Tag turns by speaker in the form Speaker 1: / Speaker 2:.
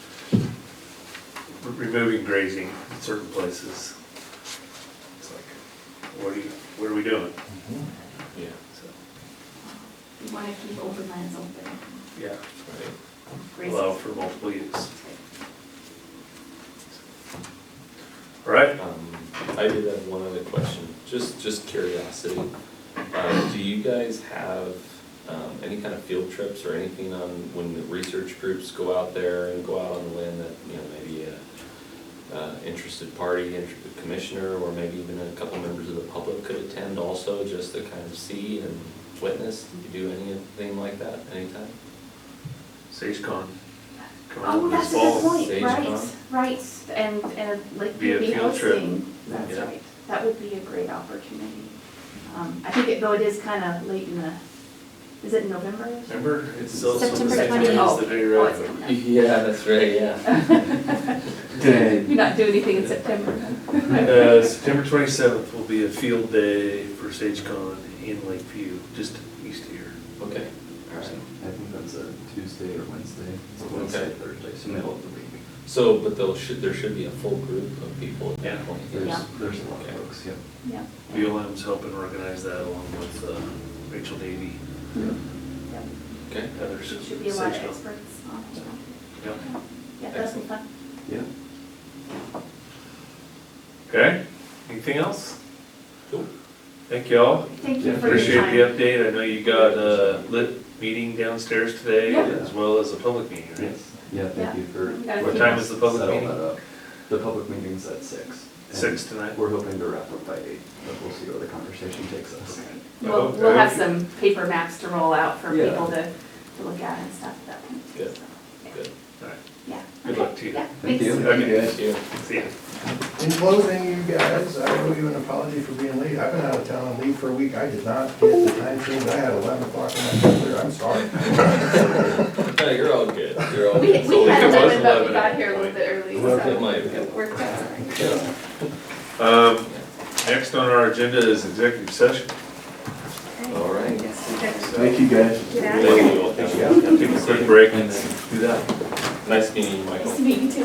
Speaker 1: re- removing grazing in certain places. It's like, what are you, what are we doing?
Speaker 2: Yeah.
Speaker 1: So,
Speaker 3: We want to keep open lands open.
Speaker 1: Yeah,
Speaker 2: Right.
Speaker 3: Grace-
Speaker 1: allow for multiple use. All right,
Speaker 2: Um, I did have one other question, just, just curiosity. Um, do you guys have, um, any kind of field trips or anything on when the research groups go out there and go out on the land that, you know, maybe a, uh, interested party, interested commissioner, or maybe even a couple members of the public could attend also, just to kind of see and witness? Do you do anything like that anytime?
Speaker 1: SageCon. coming up
Speaker 3: Oh,
Speaker 1: this
Speaker 3: that's a
Speaker 1: fall.
Speaker 3: good point,
Speaker 2: Sage
Speaker 3: right,
Speaker 2: Con.
Speaker 3: right, and, and like
Speaker 1: Be a
Speaker 3: maybe
Speaker 1: field trip.
Speaker 3: hosting, that's
Speaker 2: Yeah.
Speaker 3: right, that would be a great opportunity. Um, I think it, though it is kind of late in the, is it in November? or something?
Speaker 1: Remember, it's also the
Speaker 3: September
Speaker 1: same time
Speaker 3: 20.
Speaker 1: as the day
Speaker 3: Oh, it's
Speaker 1: road.
Speaker 3: coming up.
Speaker 2: Yeah, that's right, yeah.
Speaker 3: You not do anything in September.
Speaker 1: Uh, September twenty-seventh will be a field day for SageCon in Lakeview, just east of here.
Speaker 2: Okay, all right.
Speaker 4: I think that's a Tuesday or Wednesday. It's a
Speaker 2: Okay.
Speaker 4: Wednesday, Thursday, so middle of the week.
Speaker 2: So, but there should, there should be a full group of people at
Speaker 1: Yeah.
Speaker 2: that point.
Speaker 4: There's,
Speaker 3: Yeah.
Speaker 4: there's a lot of
Speaker 2: Okay.
Speaker 4: folks, yeah.
Speaker 3: Yeah.
Speaker 1: BLM's helping organize that along with uh, Rachel Davy,
Speaker 3: Yep.
Speaker 2: Okay.
Speaker 1: others.
Speaker 3: Should be a lot of
Speaker 1: Sage Con.
Speaker 3: experts on it.
Speaker 1: Yep.
Speaker 3: Yeah, that'd be fun.
Speaker 4: Yeah.
Speaker 1: Okay, anything else?
Speaker 2: Cool.
Speaker 1: Thank y'all.
Speaker 3: Thank you
Speaker 4: Yeah,
Speaker 3: for your
Speaker 1: Appreciate
Speaker 3: time.
Speaker 1: the update. I know you got a lit meeting downstairs today
Speaker 3: Yeah.
Speaker 1: as well as a public meeting, right?
Speaker 4: Yeah, thank you for.
Speaker 3: We gotta
Speaker 1: What
Speaker 3: keep
Speaker 1: time
Speaker 3: us-
Speaker 1: is the public
Speaker 4: settle
Speaker 1: meeting?
Speaker 4: that up. The public meeting's at six. and
Speaker 1: Six tonight?
Speaker 4: We're hoping to wrap up by eight, but we'll see where the conversation takes us.
Speaker 3: We'll,
Speaker 1: Okay.
Speaker 3: we'll have some paper maps to roll out for
Speaker 4: Yeah.
Speaker 3: people to, to look at and stuff at that point.
Speaker 2: Good.
Speaker 3: So, yeah.
Speaker 2: Good.
Speaker 1: All right,
Speaker 3: Yeah.
Speaker 1: Good
Speaker 3: Okay.
Speaker 1: luck to you.
Speaker 3: Yeah,
Speaker 4: Thank
Speaker 3: thanks.
Speaker 4: you.
Speaker 1: Okay.
Speaker 2: Thank you.
Speaker 1: see ya.
Speaker 5: In closing, you guys, I owe you an apology for being late. I've been out of town on leave for a week. I did not get the time change. I had eleven o'clock in my calendar. I'm sorry.
Speaker 2: No, you're all good, you're all
Speaker 3: We,
Speaker 2: good.
Speaker 1: So
Speaker 3: we had
Speaker 1: it was
Speaker 3: eleven, but we
Speaker 1: 11
Speaker 3: got
Speaker 1: at
Speaker 3: here a little
Speaker 1: point.
Speaker 3: bit early,
Speaker 2: It
Speaker 3: so
Speaker 2: might have
Speaker 3: it
Speaker 2: been.
Speaker 3: worked out all right.
Speaker 1: Um, Next on our agenda is executive session.
Speaker 2: All right.
Speaker 4: Thank you, guys.
Speaker 3: Get out of here.
Speaker 2: Thank you all.
Speaker 1: Take a quick break.
Speaker 4: And then do that.
Speaker 2: Nice meeting you, Michael.
Speaker 3: Nice to meet you too.